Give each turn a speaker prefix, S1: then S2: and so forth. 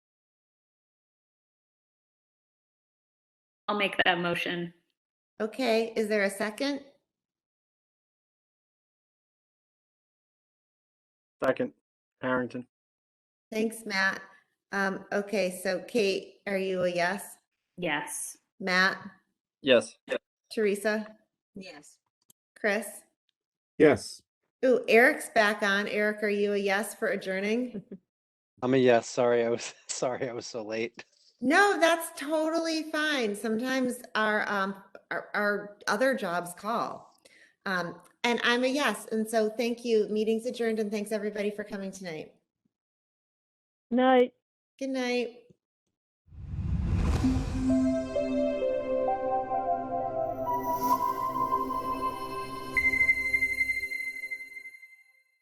S1: I'll make that motion.
S2: Okay, is there a second?
S3: Second, Harrington.
S2: Thanks, Matt. Um, okay, so Kate, are you a yes?
S1: Yes.
S2: Matt,
S3: Yes.
S2: Teresa,
S4: Yes.
S2: Chris?
S5: Yes.
S2: Ooh, Eric's back on. Eric, are you a yes for adjourning?
S6: I'm a yes. Sorry, I was sorry I was so late.
S2: No, that's totally fine. Sometimes our, um, our, our other jobs call. Um, and I'm a yes. And so thank you. Meeting's adjourned and thanks everybody for coming tonight.
S7: Night.
S2: Good night.